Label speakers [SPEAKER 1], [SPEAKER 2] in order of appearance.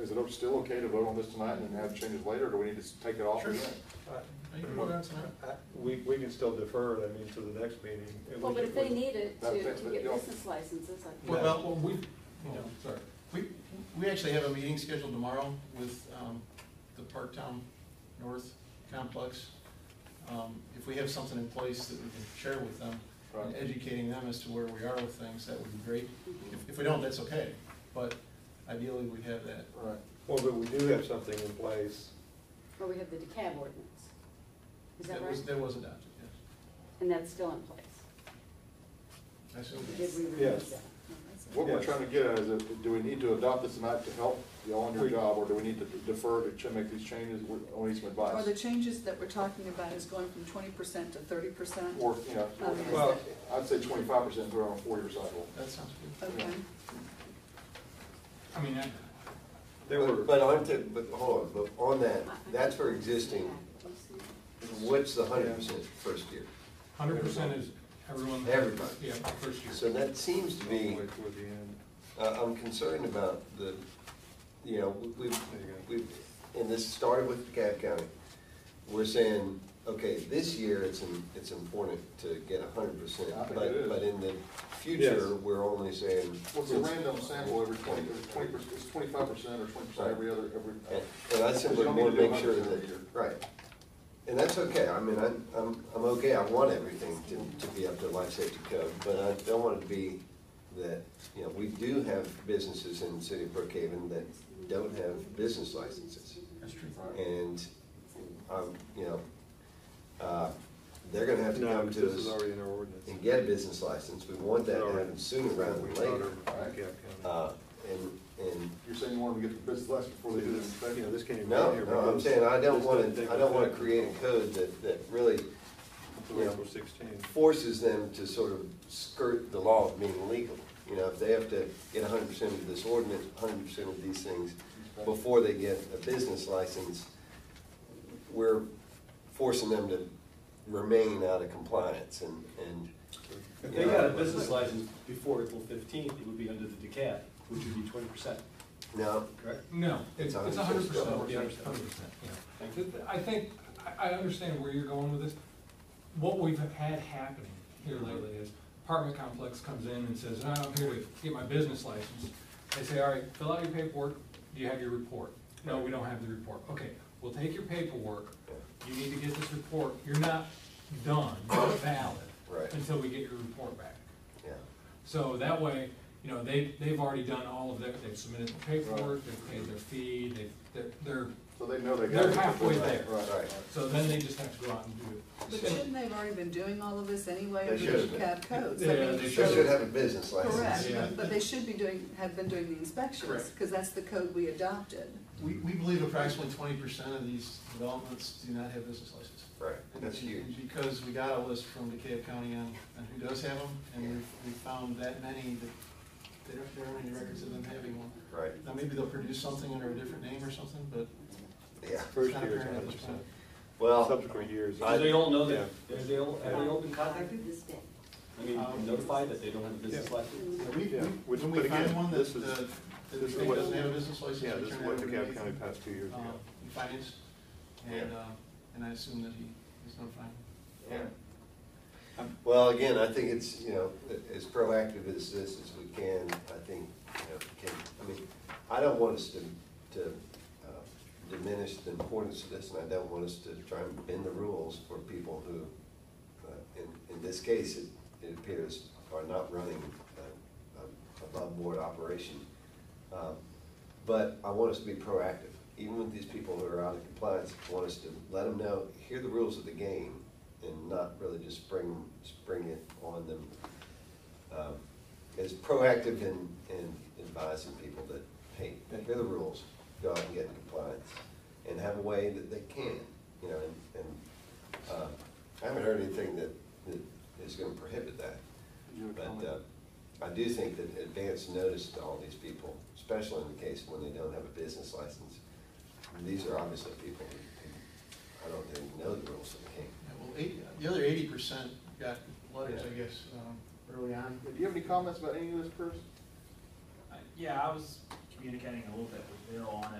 [SPEAKER 1] is it still okay to vote on this tonight and then have changes later, or do we need to take it off
[SPEAKER 2] Sure.
[SPEAKER 1] again?
[SPEAKER 2] You can vote on it tonight.
[SPEAKER 3] I- We, we can still defer it, I mean, to the next meeting. and
[SPEAKER 4] Well,
[SPEAKER 3] we
[SPEAKER 4] but
[SPEAKER 3] can-
[SPEAKER 4] if they need it to
[SPEAKER 1] That- that's-
[SPEAKER 4] to get
[SPEAKER 1] yeah.
[SPEAKER 4] business licenses, I.
[SPEAKER 2] Well,
[SPEAKER 3] Yeah.
[SPEAKER 2] well, we, you know, sorry. We, we actually have a meeting scheduled tomorrow with um, the Parktown North Complex. Um, If we have something in place that we can share with them, and
[SPEAKER 1] Right.
[SPEAKER 2] educating them as to where we are with things, that would be great.
[SPEAKER 4] Mhm.
[SPEAKER 2] If, if we don't, that's okay, but ideally, we have that.
[SPEAKER 1] Right.
[SPEAKER 3] Well, but we do have something in place.
[SPEAKER 4] Well, we have the decab ordinance. Is that
[SPEAKER 2] was-
[SPEAKER 4] right?
[SPEAKER 2] That was adopted, yes.
[SPEAKER 4] And that's still in place.
[SPEAKER 2] I assume.
[SPEAKER 4] Did we
[SPEAKER 3] Yes.
[SPEAKER 4] release that?
[SPEAKER 1] What we're
[SPEAKER 3] Yes.
[SPEAKER 1] trying to get at is, if- do we need to adopt this tonight to help you on your
[SPEAKER 3] We-
[SPEAKER 1] job, or do we need to defer to ch- make these changes, We- I need some
[SPEAKER 5] Or the
[SPEAKER 1] advice?
[SPEAKER 5] changes that we're talking about is going from twenty percent to thirty percent?
[SPEAKER 1] Or, you know,
[SPEAKER 5] Okay.
[SPEAKER 1] well, I'd say twenty-five percent, throw it on a four-year cycle.
[SPEAKER 2] That sounds good.
[SPEAKER 5] Okay,
[SPEAKER 4] Oh.
[SPEAKER 2] I mean, I-
[SPEAKER 3] There were,
[SPEAKER 6] But but on to, but hold on, but on that, that's for existing, what's the hundred percent first year?
[SPEAKER 7] Hundred percent is everyone.
[SPEAKER 6] Everybody.
[SPEAKER 7] Yeah, first year.
[SPEAKER 6] So that seems to
[SPEAKER 3] all the
[SPEAKER 6] be,
[SPEAKER 3] way toward the end.
[SPEAKER 6] uh, I'm concerned about the, you know, we- we've, we've, and this started with DeKalb County. We're saying, okay, this year it's, im- it's important to get hundred percent,
[SPEAKER 1] I think it is.
[SPEAKER 6] but, but in the
[SPEAKER 3] Yes.
[SPEAKER 6] future, we're only saying.
[SPEAKER 1] What's a random sample every twenty, twenty percent, it's twenty-five percent or twenty percent every other, every.
[SPEAKER 6] And and I simply
[SPEAKER 1] You don't need
[SPEAKER 6] want
[SPEAKER 1] to
[SPEAKER 6] to
[SPEAKER 1] do
[SPEAKER 6] make sure
[SPEAKER 1] 100%
[SPEAKER 6] that,
[SPEAKER 1] every year.
[SPEAKER 6] right. And that's okay, I mean, I'm, I'm, I'm okay, I want everything to, to be up to life safety code, but I don't want it to be that, you know, we do have businesses in the city of Brookhaven that don't have business licenses.
[SPEAKER 2] that's true.
[SPEAKER 6] And, um, you know, uh, they're gonna have to
[SPEAKER 3] No,
[SPEAKER 6] come
[SPEAKER 3] this
[SPEAKER 6] to
[SPEAKER 3] is
[SPEAKER 6] us
[SPEAKER 3] already in our ordinance.
[SPEAKER 6] and get a business license, we want that to happen sooner rather
[SPEAKER 3] We
[SPEAKER 6] than
[SPEAKER 3] thought
[SPEAKER 6] later.
[SPEAKER 3] of DeKalb County.
[SPEAKER 6] Uh, and, and
[SPEAKER 1] You're saying you want them to get the business license before they do the
[SPEAKER 3] You know,
[SPEAKER 1] inspection?
[SPEAKER 3] this came. from
[SPEAKER 6] No,
[SPEAKER 3] here
[SPEAKER 6] no, I'm
[SPEAKER 3] because
[SPEAKER 6] saying I don't
[SPEAKER 3] this
[SPEAKER 6] want
[SPEAKER 3] doesn't
[SPEAKER 6] to,
[SPEAKER 3] take
[SPEAKER 6] I don't want to
[SPEAKER 3] effect
[SPEAKER 6] create a code that, that really
[SPEAKER 3] until April 16.
[SPEAKER 6] forces them to sort of skirt the law of being legal. You know, if they have to get hundred percent of this ordinance, hundred percent of these things before they get a business license, we're forcing them to remain out of compliance and, and.
[SPEAKER 8] If they got a business license before April fifteenth, it would be under the decaf, which would be twenty percent.
[SPEAKER 6] Now,
[SPEAKER 8] Correct.
[SPEAKER 7] No, it's
[SPEAKER 6] It's
[SPEAKER 7] it's a hundred percent,
[SPEAKER 6] 100%.
[SPEAKER 7] yeah, hundred percent, yeah. Th- th- I think, I, I understand where you're going with this. What we've had happening here lately is apartment complex comes in and says, "No, I'm here to get my business license. They say, all right, fill out your paperwork, do you have your report? No, we don't have the report. Okay, we'll take your paperwork, you need to get this report, you're not done, not valid,
[SPEAKER 6] Right.
[SPEAKER 7] until we get your report back.
[SPEAKER 6] yeah,
[SPEAKER 7] So that way, you know, they, they've already done all of their, they've submitted the paperwork, they've paid their fee, they've, they're- they're,
[SPEAKER 1] So they know they got.
[SPEAKER 7] they're
[SPEAKER 1] it.
[SPEAKER 7] halfway
[SPEAKER 1] Right,
[SPEAKER 7] there.
[SPEAKER 1] Right, right.
[SPEAKER 7] So then they just have to go out and do
[SPEAKER 5] but
[SPEAKER 7] it. And-
[SPEAKER 5] shouldn't they have already been doing all of this anyway
[SPEAKER 6] They
[SPEAKER 5] under the
[SPEAKER 6] should
[SPEAKER 5] cab
[SPEAKER 6] have
[SPEAKER 5] codes?
[SPEAKER 7] Yeah,
[SPEAKER 5] I mean,
[SPEAKER 7] they
[SPEAKER 6] they
[SPEAKER 5] so-
[SPEAKER 6] should have a business license.
[SPEAKER 5] Correct,
[SPEAKER 7] Yeah.
[SPEAKER 5] but- but they should be doing, have been doing the inspections,
[SPEAKER 2] Correct.
[SPEAKER 5] because that's the code we adopted.
[SPEAKER 2] We, we believe approximately twenty percent of these developments do not have business licenses.
[SPEAKER 6] Right, that's
[SPEAKER 2] And-
[SPEAKER 6] huge.
[SPEAKER 2] and Because we got a list from DeKalb County on, on who does have them, and we, we found that many that, there aren't- there aren't any records of them having one.
[SPEAKER 6] Right,
[SPEAKER 2] Now, maybe they'll produce something under a different name or something, but
[SPEAKER 6] yeah.
[SPEAKER 2] it's
[SPEAKER 3] First
[SPEAKER 2] not
[SPEAKER 3] year is
[SPEAKER 2] apparent at
[SPEAKER 3] hundred
[SPEAKER 2] this point.
[SPEAKER 3] percent.
[SPEAKER 6] Well,
[SPEAKER 3] Subsequent years.
[SPEAKER 8] Because they don't know
[SPEAKER 3] Yeah.
[SPEAKER 8] that, have they, all- have they all been contacted?
[SPEAKER 4] This day.
[SPEAKER 8] I mean,
[SPEAKER 2] Um,
[SPEAKER 8] notified that they don't have a business
[SPEAKER 3] Yeah.
[SPEAKER 8] license?
[SPEAKER 2] Yeah, we,
[SPEAKER 3] Yeah,
[SPEAKER 2] we,
[SPEAKER 3] which-
[SPEAKER 2] when we
[SPEAKER 3] but again,
[SPEAKER 2] find one that,
[SPEAKER 3] this
[SPEAKER 2] uh,
[SPEAKER 3] is-
[SPEAKER 2] that
[SPEAKER 3] this
[SPEAKER 2] we
[SPEAKER 3] is
[SPEAKER 2] think
[SPEAKER 3] what-
[SPEAKER 2] doesn't have a business license.
[SPEAKER 3] Yeah,
[SPEAKER 2] we
[SPEAKER 3] this is
[SPEAKER 2] turn
[SPEAKER 3] what
[SPEAKER 2] it over to
[SPEAKER 3] DeKalb
[SPEAKER 2] Nathan,
[SPEAKER 3] County passed two years
[SPEAKER 2] uh,
[SPEAKER 3] ago.
[SPEAKER 2] in Finance, and, uh, and I assume that he is notified.
[SPEAKER 6] Yeah. Um, Well, again, I think it's, you know, as proactive as this as we can, I think, you know, can, I mean, I don't want us to, to uh, diminish the importance of this, and I don't want us to try and bend the rules for people who, uh, in, in this case, it, it appears are not running uh, a above-board operation. Um, But I want us to be proactive, even with these people who are out of compliance, I want us to let them know, hear the rules of the game, and not really just spring, spring it on them. Um, As proactive in, in advising people that, hey, here are the rules, go out and get in compliance, and have a way that they can, you know, and, and, uh, I haven't heard anything that, that is gonna prohibit that.
[SPEAKER 1] Did you have a
[SPEAKER 6] But
[SPEAKER 1] comment?
[SPEAKER 6] uh, I do think that advance notice to all these people, especially in the case when they don't have a business license, these are obviously people who, who I don't think know the rules of the game.
[SPEAKER 2] Yeah, well, eight, the other eighty percent got letters, I
[SPEAKER 6] Yeah.
[SPEAKER 2] guess, um, early on.
[SPEAKER 1] Do you have any comments about any of this, Chris?
[SPEAKER 9] Uh, Yeah, I was communicating a little bit with Bill on it.